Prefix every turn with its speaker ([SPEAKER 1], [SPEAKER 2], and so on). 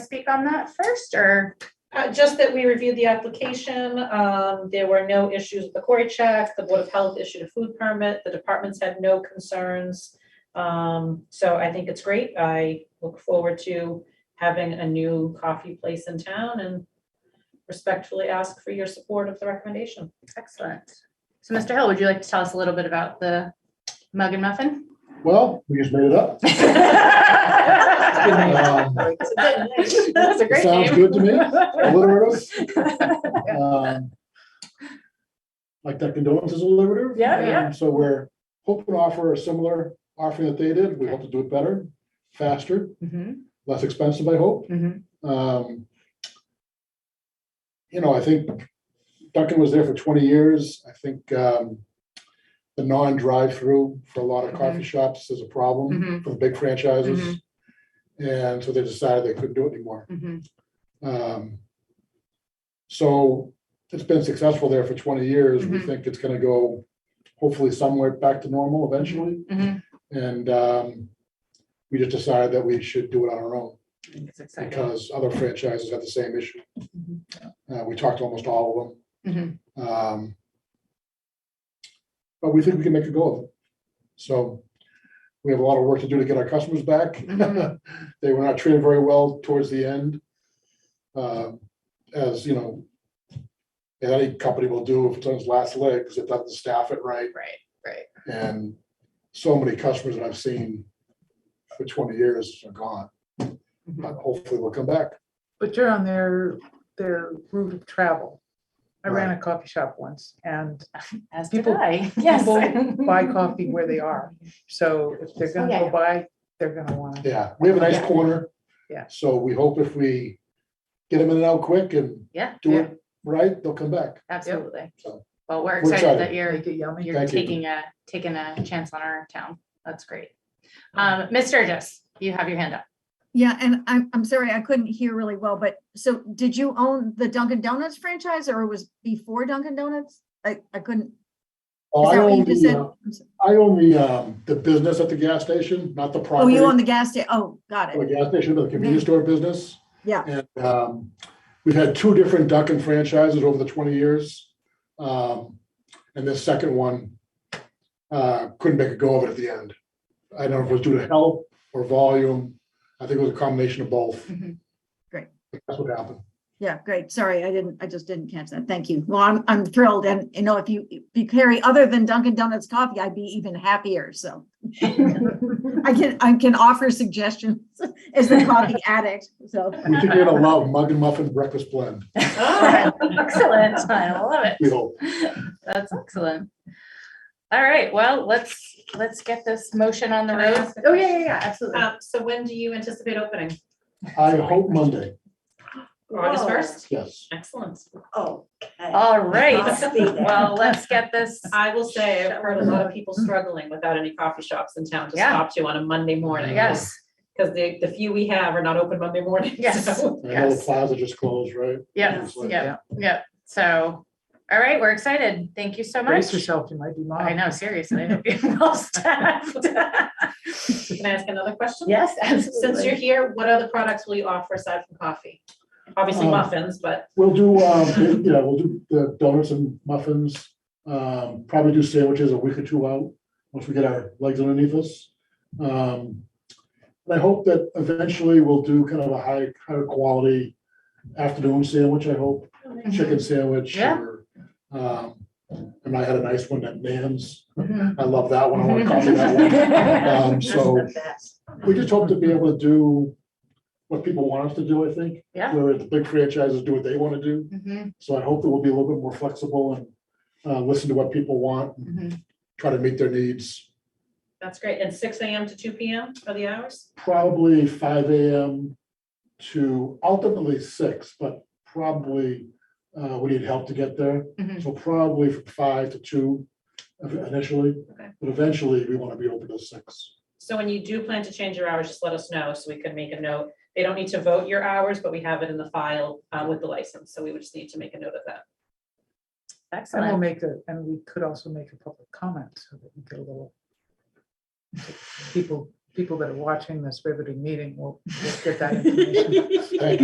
[SPEAKER 1] speak on that first, or?
[SPEAKER 2] Uh, just that we reviewed the application, um, there were no issues with the quarry check, the Board of Health issued a food permit, the departments had no concerns. Um, so I think it's great, I look forward to having a new coffee place in town and respectfully ask for your support of the recommendation.
[SPEAKER 1] Excellent. So Mr. Hill, would you like to tell us a little bit about the mug and muffin?
[SPEAKER 3] Well, we just made it up.
[SPEAKER 1] That
[SPEAKER 3] Um,
[SPEAKER 1] was a great
[SPEAKER 3] Sounds
[SPEAKER 1] name.
[SPEAKER 3] good to me. Alliterative. Um, Like that condolence is alliterative.
[SPEAKER 1] Yeah,
[SPEAKER 3] Um,
[SPEAKER 1] yeah.
[SPEAKER 3] So we're hoping to offer a similar offering that they did. We hope to do it better, faster,
[SPEAKER 1] Mhm,
[SPEAKER 3] less expensive, I hope.
[SPEAKER 1] mhm,
[SPEAKER 3] Um, You know, I think Duncan was there for twenty years. I think um, the non-drive-through for a lot of coffee shops is a problem
[SPEAKER 1] Mhm.
[SPEAKER 3] for the big franchises. And so they decided they couldn't do it anymore.
[SPEAKER 1] mhm.
[SPEAKER 3] Um, So it's been successful there for twenty years. We
[SPEAKER 1] Mhm.
[SPEAKER 3] think it's gonna go hopefully somewhere back to normal eventually.
[SPEAKER 1] Mhm.
[SPEAKER 3] And um, we just decided that we should do it on our own
[SPEAKER 1] I think It's exciting.
[SPEAKER 3] because other franchises have the same issue.
[SPEAKER 1] Mhm.
[SPEAKER 3] Uh, we talked to almost all of
[SPEAKER 1] Mhm.
[SPEAKER 3] them. Um, But we think we can make a go of it. So we have a lot of work to do to get our customers back.
[SPEAKER 1] Mhm.
[SPEAKER 3] They were not treated very well towards the end. Um, As, you know, any company will do if it's on its last legs, it doesn't staff it right.
[SPEAKER 1] Right, right.
[SPEAKER 3] And so many customers that I've seen for twenty years are gone. But hopefully we'll come back.
[SPEAKER 4] But you're on their, their route of travel. I ran a coffee shop once and
[SPEAKER 1] As did
[SPEAKER 4] People-
[SPEAKER 1] I.
[SPEAKER 4] people buy coffee where they are. So if they're
[SPEAKER 1] Oh, yeah,
[SPEAKER 4] gonna
[SPEAKER 1] yeah.
[SPEAKER 4] go buy, they're gonna want to.
[SPEAKER 3] Yeah, we have a nice
[SPEAKER 1] Yeah.
[SPEAKER 3] corner.
[SPEAKER 4] Yeah.
[SPEAKER 3] So we hope if we get them in and out quick and
[SPEAKER 1] Yeah,
[SPEAKER 3] do it right, they'll come back.
[SPEAKER 1] absolutely.
[SPEAKER 3] So-
[SPEAKER 1] Well, we're
[SPEAKER 3] We're
[SPEAKER 1] excited that
[SPEAKER 3] excited.
[SPEAKER 1] you're,
[SPEAKER 4] Make it yummy.
[SPEAKER 1] you're
[SPEAKER 3] Thank you.
[SPEAKER 1] taking a, taking a chance on our town. That's great. Um, Ms. Sturgis, you have your hand up.
[SPEAKER 5] Yeah, and I'm, I'm sorry, I couldn't hear really well, but so did you own the Dunkin' Donuts franchise or it was before Dunkin' Donuts? I, I couldn't,
[SPEAKER 3] Oh,
[SPEAKER 5] is
[SPEAKER 3] I
[SPEAKER 5] that what you
[SPEAKER 3] own
[SPEAKER 5] just
[SPEAKER 3] the,
[SPEAKER 5] said?
[SPEAKER 3] uh,
[SPEAKER 5] I'm so-
[SPEAKER 3] I own the, um, the business at the gas station, not the
[SPEAKER 5] Oh,
[SPEAKER 3] property.
[SPEAKER 5] you own the gas station? Oh, got
[SPEAKER 3] The
[SPEAKER 5] it.
[SPEAKER 3] gas station, but the convenience store business.
[SPEAKER 5] Yeah.
[SPEAKER 3] And, um, we've had two different Dunkin' franchises over the twenty years. Um, and this second one, uh, couldn't make a go of it at the end. I don't know if it was due to health or volume. I think it was a combination of both.
[SPEAKER 1] Mhm.
[SPEAKER 5] Mm-hmm. Great.
[SPEAKER 3] That's what happened.
[SPEAKER 5] Yeah, great. Sorry, I didn't, I just didn't catch that. Thank you. Well, I'm, I'm thrilled. And you know, if you, if you carry other than Dunkin' Donuts coffee, I'd be even happier. So I can, I can offer suggestions as the coffee addict. So,
[SPEAKER 3] We think you're gonna love mug and muffin breakfast blend,
[SPEAKER 1] Excellent. I love it.
[SPEAKER 3] we hope.
[SPEAKER 1] That's excellent. All right, well, let's, let's get this motion on the
[SPEAKER 2] Can I
[SPEAKER 1] road.
[SPEAKER 2] ask a
[SPEAKER 1] Oh, yeah, yeah, yeah, absolutely.
[SPEAKER 2] Um, so when do you anticipate opening?
[SPEAKER 3] I hope Monday,
[SPEAKER 2] August
[SPEAKER 6] Whoa.
[SPEAKER 2] first?
[SPEAKER 3] yes.
[SPEAKER 2] Excellent.
[SPEAKER 6] Okay.
[SPEAKER 1] All right,
[SPEAKER 6] Must be there.
[SPEAKER 1] well, let's get this,
[SPEAKER 2] I will say, I've heard a lot of people struggling without any coffee shops in town to
[SPEAKER 1] Yeah.
[SPEAKER 2] stop to on a Monday morning.
[SPEAKER 1] yes,
[SPEAKER 2] Because the, the few we have are not open Monday morning.
[SPEAKER 1] Yes.
[SPEAKER 2] so-
[SPEAKER 3] I know the
[SPEAKER 1] Yes.
[SPEAKER 3] plaza just closed, right?
[SPEAKER 1] yeah,
[SPEAKER 3] It's like-
[SPEAKER 1] yeah, yeah. So, all right, we're excited. Thank you so
[SPEAKER 4] Brace
[SPEAKER 1] much.
[SPEAKER 4] yourself, you might be mom.
[SPEAKER 1] I know, seriously, I hope you're well staffed.
[SPEAKER 2] Can I ask another question?
[SPEAKER 1] Yes,
[SPEAKER 2] Since you're here, what other products will you offer aside from coffee? Obviously
[SPEAKER 3] Um,
[SPEAKER 2] muffins, but
[SPEAKER 3] We'll do, um, yeah, we'll do the donuts and muffins, um, probably do sandwiches a week or two out, once we get our legs underneath us. Um, And I hope that eventually we'll do kind of a high, higher quality afternoon sandwich, I hope,
[SPEAKER 1] oh,
[SPEAKER 3] chicken sandwich.
[SPEAKER 1] Mm-hmm. Yeah.
[SPEAKER 3] or, um, And I had a nice one at Nan's,
[SPEAKER 1] Mhm.
[SPEAKER 3] I love that one, I want to copy that one. Um, so we just hope to be able to do what people want us to do, I think.
[SPEAKER 1] Yeah.
[SPEAKER 3] Where the big franchises do what they want to do.
[SPEAKER 1] Mhm,
[SPEAKER 3] So I hope that we'll be a little bit more flexible and uh, listen to what people want, and
[SPEAKER 1] mhm.
[SPEAKER 3] try to meet their needs.
[SPEAKER 2] that's great. And six AM to two PM are the hours?
[SPEAKER 3] Probably five AM to ultimately six, but probably uh, we need help to get there.
[SPEAKER 1] Mhm.
[SPEAKER 3] So probably from five to two uh, initially,
[SPEAKER 2] Okay.
[SPEAKER 3] but eventually we want to be open to six.
[SPEAKER 2] So when you do plan to change your hours, just let us know so we can make a note. They don't need to vote your hours, but we have it in the file uh, with the license, so we would just need to make a note of that.
[SPEAKER 4] And we'll
[SPEAKER 1] Excellent.
[SPEAKER 4] make a, and we could also make a public comment so that we get a little. so People people that are watching this riveting meeting will will get that information.